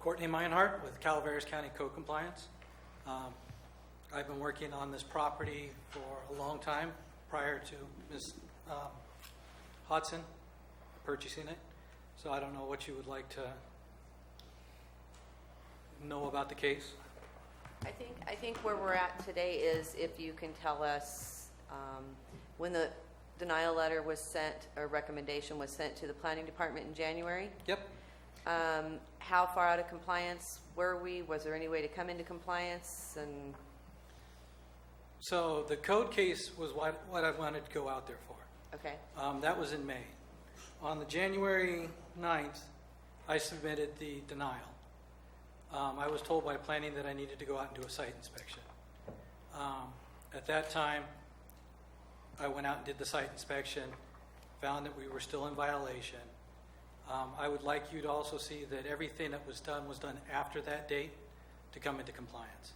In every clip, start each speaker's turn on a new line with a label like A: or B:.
A: Courtney Meinhardt with Calaveras County Code Compliance. Um, I've been working on this property for a long time prior to Ms. um, Hodson purchasing it. So I don't know what you would like to know about the case.
B: I think, I think where we're at today is if you can tell us um, when the denial letter was sent, or recommendation was sent to the planning department in January,
A: Yep,
B: um, how far out of compliance were we? Was there any way to come into compliance? And,
A: so the code case was what what I wanted to go out there for.
B: okay,
A: Um, That was in May. On the January 9th, I submitted the denial. Um, I was told by planning that I needed to go out and do a site inspection. Um, At that time, I went out and did the site inspection, found that we were still in violation. Um, I would like you to also see that everything that was done was done after that date to come into compliance.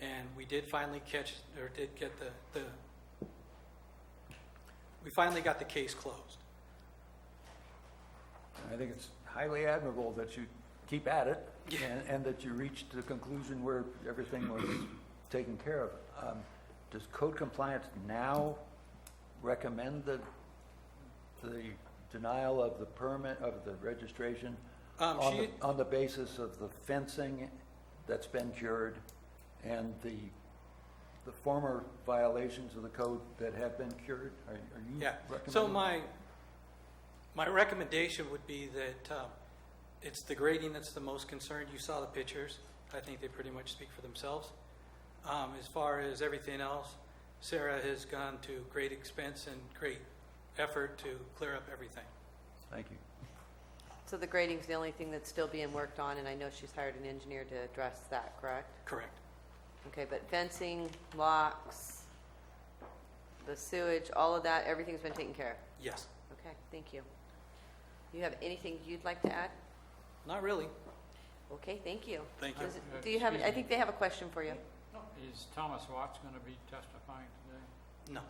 A: And we did finally catch, or did get the, the we finally got the case closed.
C: I think it's highly admirable that you keep at it
A: Yeah.
C: and, and that you reached the conclusion where everything was taken care of. Um, Does code compliance now recommend the, the denial of the permit, of the registration?
A: Um,
C: on
A: she-
C: the- On the basis of the fencing that's been cured and the, the former violations of the code that have been cured? Are are you
A: Yeah.
C: recommending?
A: So my, my recommendation would be that um, it's the grading that's the most concerned. You saw the pictures. I think they pretty much speak for themselves. Um, As far as everything else, Sarah has gone to great expense and great effort to clear up everything.
C: Thank you.
B: so the grading's the only thing that's still being worked on, and I know she's hired an engineer to address that, correct?
A: Correct.
B: Okay, but fencing, locks, the sewage, all of that, everything's been taken care of?
A: Yes.
B: Okay, thank you. You have anything you'd like to add?
A: Not really.
B: Okay, thank you.
A: Thank you.
B: Does- Do you have, I think they have a question for you.
D: Is Thomas Watts going to be testifying today?
A: No.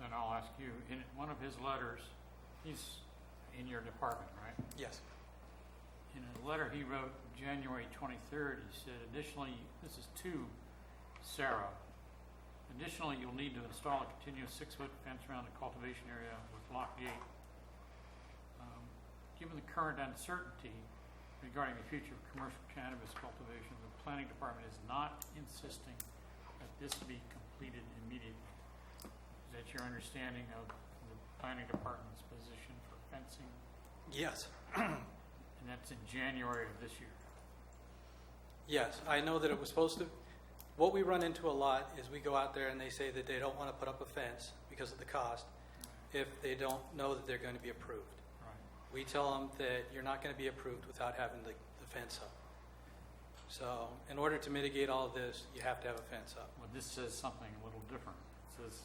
D: Then I'll ask you, in one of his letters, he's in your department, right?
A: Yes.
D: In a letter he wrote January 23rd, he said additionally, this is to Sarah, additionally, you'll need to install a continuous six-foot fence around the cultivation area with lock gate. Um, Given the current uncertainty regarding the future of commercial cannabis cultivation, the planning department is not insisting that this be completed immediately. Is that your understanding of the planning department's position for fencing?
A: Yes.
D: And that's in January of this year.
A: Yes, I know that it was supposed to, what we run into a lot is we go out there and they say that they don't want to put up a fence because of the cost if they don't know that they're going to be approved.
D: Right.
A: We tell them that you're not going to be approved without having the, the fence up. So in order to mitigate all of this, you have to have a fence up.
D: Well, this says something a little different. It says,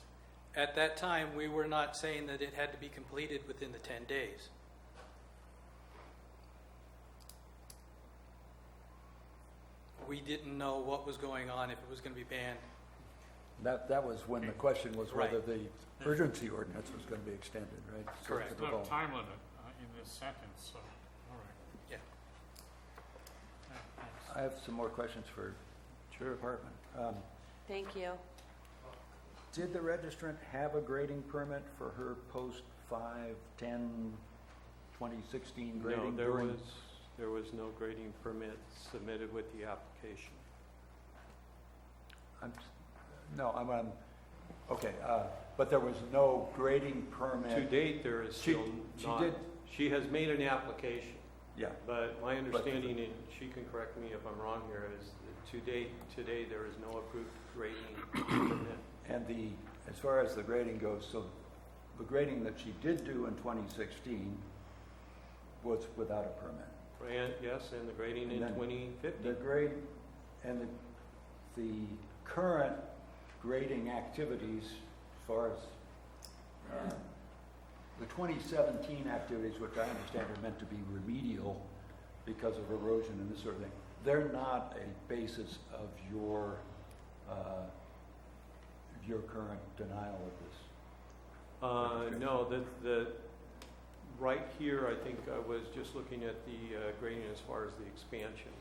A: At that time, we were not saying that it had to be completed within the 10 days. We didn't know what was going on, if it was going to be banned,
C: That, that was when the question was whether
A: Right.
C: the urgency ordinance was going to be extended, right? So it's
A: Correct.
D: there's
C: difficult.
D: no time limit uh, in this sentence, so, all right.
A: yeah.
D: Yeah, thanks.
C: I have some more questions for your Department. Um,
B: Thank you.
C: Did the registrant have a grading permit for her post 5, 10, 2016
E: No,
C: grading?
E: there
C: during-
E: was, there was no grading permit submitted with the application.
C: I'm s- No, I'm, I'm, okay, uh, but there was no grading
E: To
C: permit?
E: date, there is
C: She-
E: still
C: she
E: not.
C: did-
E: She has made an application,
C: Yeah,
E: but my understanding, and she can correct me if I'm wrong here, is that to date, today, there is no approved grading permit.
C: and the, as far as the grading goes, so the grading that she did do in 2016 was without a permit?
E: And, yes, and the grading in
C: And then-
E: 2050.
C: The grade, and the, the current grading activities as far as, uh, the 2017 activities, which I understand are meant to be remedial because of erosion and this sort of thing, they're not a basis of your, uh, your current denial of this.
E: Uh, no, the, the, right here, I think I was just looking at the uh, grading as far as the expansion.